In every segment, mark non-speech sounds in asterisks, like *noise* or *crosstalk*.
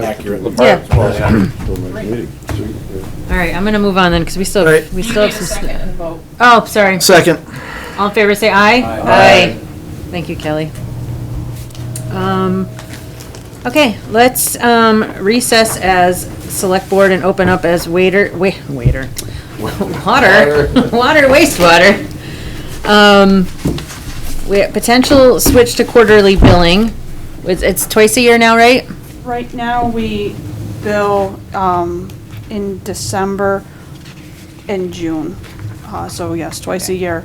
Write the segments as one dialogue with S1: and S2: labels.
S1: accurate.
S2: Yeah.
S1: Yeah.
S2: All right, I'm gonna move on then, because we still,
S3: All right.
S2: we
S4: You
S2: still have
S4: need a
S2: some.
S4: second
S2: sn-
S4: and vote.
S2: Oh, sorry.
S3: Second.
S2: All in favor, say aye.
S1: Aye.
S2: Thank you, Kelly. Um, okay, let's, um, recess as select board and open up as waiter, wa- waiter. *laughs* Water, *laughs* water wastewater. Um, we, potential switch to quarterly billing. It's, it's twice a year now, right?
S5: Right now, we bill um, in December and June, Uh, so yes, twice a year.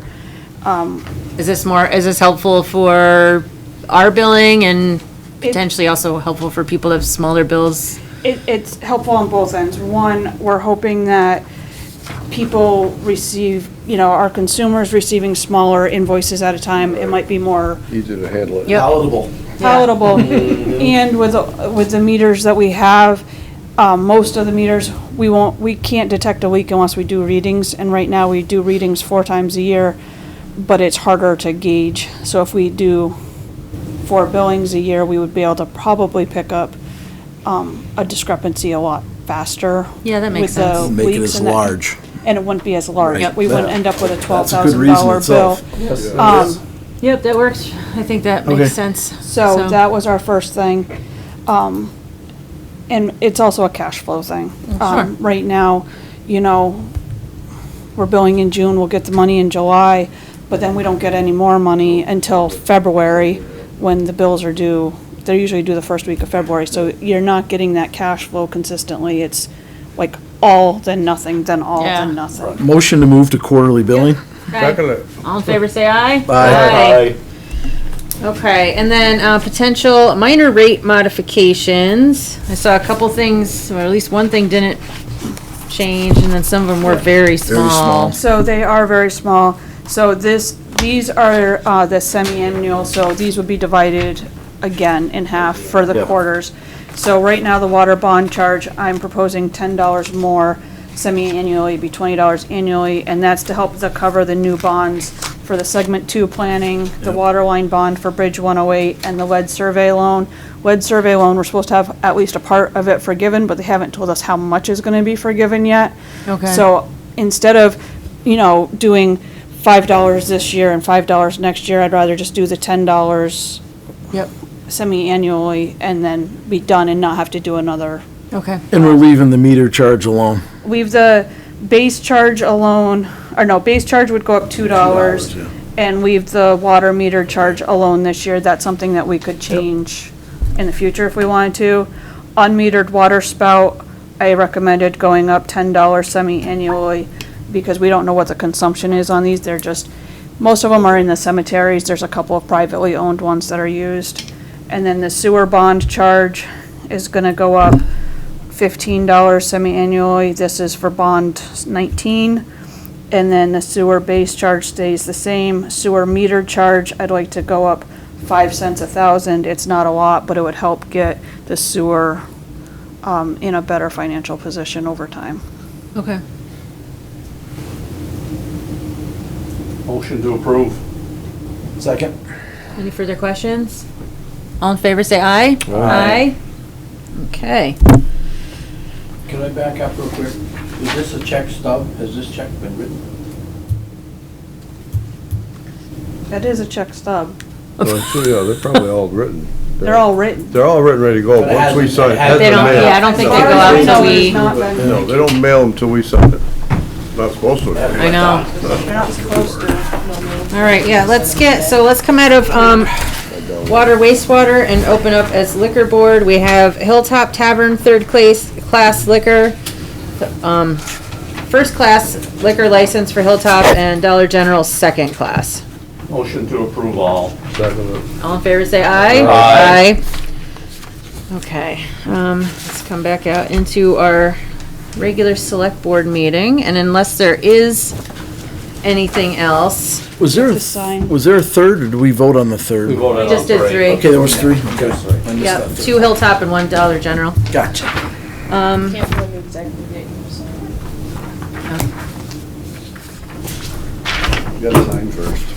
S5: Um,
S2: Is this more, is this helpful for our billing and potentially also helpful for people that have smaller bills?
S5: It, it's helpful on both ends. One, we're hoping that people receive, you know, our consumers receiving smaller invoices at a time, it might be more
S1: Easy to handle it.
S2: Yep.
S3: Palatable.
S5: palatable. And with, the- with the meters that we have, um, most of the meters, we won't, we can't detect a leak unless we do readings. And right now, we do readings four times a year, but it's harder to gauge. So if we do four billings a year, we would be able to probably pick up um, a discrepancy a lot faster.
S2: Yeah, that makes
S5: with the
S2: sense.
S3: Make it
S5: leaks
S3: as
S5: and that-
S3: large.
S5: And it wouldn't be as large.
S2: Yep.
S5: We wouldn't end up with a twelve thousand
S3: reason
S5: dollar bill.
S3: itself.
S5: Um,
S2: Yep, that works. I think that
S3: Okay.
S2: makes sense.
S5: so that was our first thing. Um, and it's also a cash flow thing. Um, right now, you know, we're billing in June, we'll get the money in July, but then we don't get any more money until February, when the bills are due. They're usually due the first week of February, so you're not getting that cash flow consistently. It's like all then nothing, then all
S2: Yeah.
S5: then nothing.
S3: Motion to move to quarterly billing?
S2: Right. All in favor, say aye. Okay, and then, uh, potential minor rate modifications. I saw a couple things, or at least one thing didn't change, and then some of them were very small.
S3: small.
S5: So they are very small. So this, these are uh, the semi-annual, so these would be divided again in half for the
S3: Yeah.
S5: quarters. So right now, the water bond charge, I'm proposing ten dollars more semi-annually, be twenty dollars annually, and that's to help to cover the new bonds for the segment two planning, the water line bond for Bridge one oh eight, and the lead survey loan. Lead survey loan, we're supposed to have at least a part of it forgiven, but they haven't told us how much is gonna be forgiven yet.
S2: Okay.
S5: So instead of, you know, doing five dollars this year and five dollars next year, I'd rather just do the ten dollars
S2: Yep,
S5: semi-annually and then be done and not have to do another.
S2: okay.
S3: And we're leaving the meter charge alone.
S5: Leave the base charge alone, or no, base charge would go up two dollars.
S3: yeah.
S5: And leave the water meter charge alone this year. That's something that we could change in the future if we wanted to. Unmetered water spout, I recommended going up ten dollars semi-annually because we don't know what the consumption is on these. They're just, most of them are in the cemeteries. There's a couple of privately owned ones that are used. And then the sewer bond charge is gonna go up fifteen dollars semi-annually. This is for bond nineteen. And then the sewer base charge stays the same. Sewer meter charge, I'd like to go up five cents a thousand. It's not a lot, but it would help get the sewer um, in a better financial position over time.
S2: Okay.
S1: Motion to approve.
S3: Second.
S2: Any further questions? All in favor, say aye.
S3: Aye.
S2: Okay.
S6: Can I back up real quick? Is this a check stub? Has this check been written?
S5: That is a check stub.
S2: *laughs*
S1: Yeah, they're probably all written.
S5: They're all written.
S1: They're all written, ready to go,
S6: But it
S1: once we
S6: hasn't-
S1: sign.
S6: it hasn't
S2: They don't,
S6: mail.
S2: yeah, I don't think they go
S6: No,
S2: out
S6: it's
S2: until
S6: not.
S2: we,
S5: No, it's not been-
S1: No, they don't mail them till we sign it. Not supposed to.
S2: I know.
S5: They're not supposed to. No, no.
S2: All right, yeah, let's get, so let's come out of, um, water wastewater and open up as liquor board. We have Hilltop Tavern, third class, class liquor, um, first class liquor license for Hilltop and Dollar General, second class.
S6: Motion to approve all.
S1: Second,
S2: All in favor, say aye.
S6: Aye.
S2: Aye. Okay, um, let's come back out into our regular select board meeting, and unless there is anything else,
S3: Was there,
S5: Just sign.
S3: was there a third, or did we vote on the third?
S2: we just did three.
S3: Okay, there was three. Okay. I missed
S2: Yep,
S3: that.
S2: two Hilltop and one Dollar General.
S3: Gotcha.
S2: Um,
S4: Can't remember the exact date, so.
S1: you gotta sign first.